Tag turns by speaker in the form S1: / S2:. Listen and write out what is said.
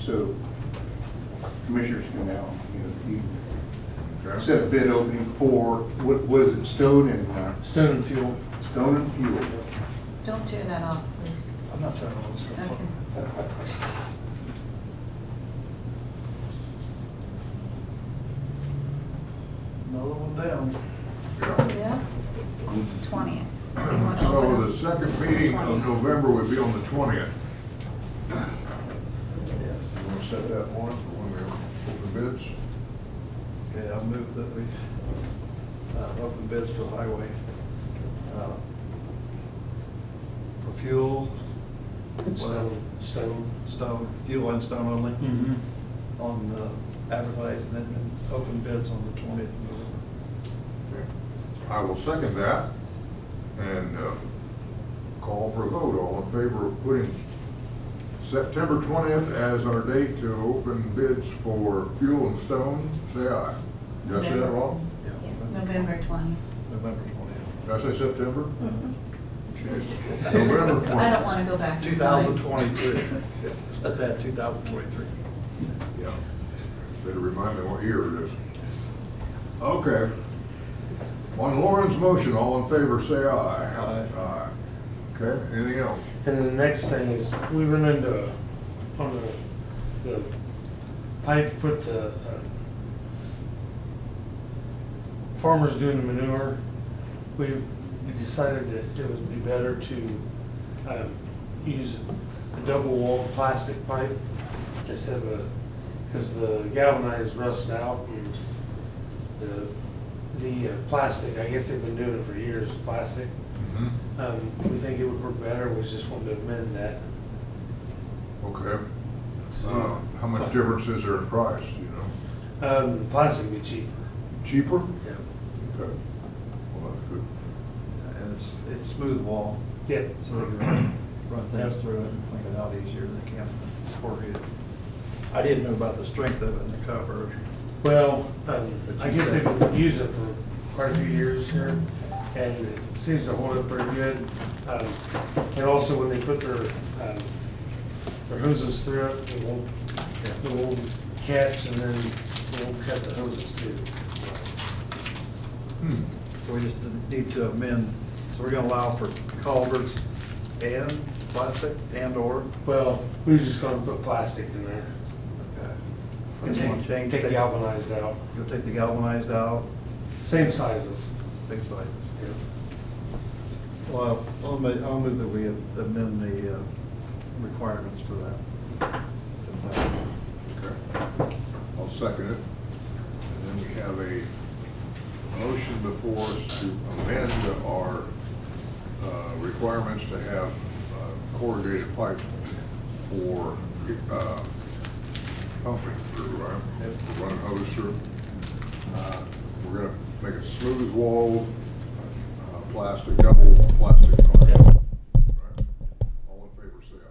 S1: so commissioners can now, you know, you
S2: Okay.
S1: set a bid opening for, what was it, stone and, uh,
S3: Stone and fuel.
S1: stone and fuel?
S4: Don't tear that off, please.
S1: I'm not talking about
S4: Okay.
S5: Another one down.
S2: Yeah.
S4: Yeah? Twentieth. So you want to
S2: So the
S4: open up?
S2: second meeting of November would be on the twentieth. You want to set that one for when we open bids?
S5: Okay, I move that we uh, open bids for highway. uh, For fuel,
S3: Stone. Stone.
S5: stone, fuel and stone only,
S3: Mm-hmm.
S5: on uh, advertising and then open bids on the twentieth of November.
S2: I will second that and uh, call for a vote. All in favor of putting September 20th as our date to open bids for fuel and stone, say aye. Did I say that wrong?
S4: Yes, November twentieth.
S5: November twentieth.
S2: Did I say September? Yes. November 20th.
S4: Mm-hmm. I don't want to go back.
S5: Two thousand twenty-three. Let's add two thousand twenty-three.
S2: Yeah. Better remind me what year it is. Okay. On Lauren's motion, all in favor, say aye.
S5: Aye.
S2: Aye. Okay, anything else?
S3: And then the next thing is, we run into, on the, the pipe, put the, uh, farmers doing the manure. We, we decided that it would be better to, um, use a double walled plastic pipe instead of a, because the galvanized rusts out and the, the uh, plastic, I guess they've been doing it for years, plastic.
S2: Mm-hmm.
S3: Um, we think it would work better, we just wanted to amend that.
S2: Okay. Uh, How much difference is there in price, you know?
S3: Um, plastic would be cheaper.
S2: Cheaper?
S3: Yeah.
S2: Okay. Well, that's good.
S5: And it's, it's smooth wall,
S3: Yeah.
S5: so they can run
S3: Yep.
S5: things through it and clean it out easier than they can corrugated. I didn't know about the strength of it and the cover.
S3: Well, um, I guess they've been using it for quite a few years here, and it seems to hold up pretty good. Um, and also when they put their, um, their hoses through it, it won't, it won't catch and then it won't cut the hoses too.
S2: Hmm.
S5: So we just need to amend, so we're gonna allow for culverts and plastic and/or?
S3: Well, we was just gonna put plastic in there.
S5: And
S3: Just
S5: uh, change-
S3: Take galvanized out,
S5: You'll take the galvanized out,
S3: same sizes.
S5: things like
S3: Yeah.
S5: this. Well, I'll move, I'll move that we amend the uh, requirements for that.
S2: Okay. I'll second it. And then we have a motion before us to amend our uh, requirements to have uh, corrugated pipe for uh, pumping through, right? For running hose through. Uh, We're gonna make a smooth wall, uh, plastic, double plastic. pipe.
S3: Yeah.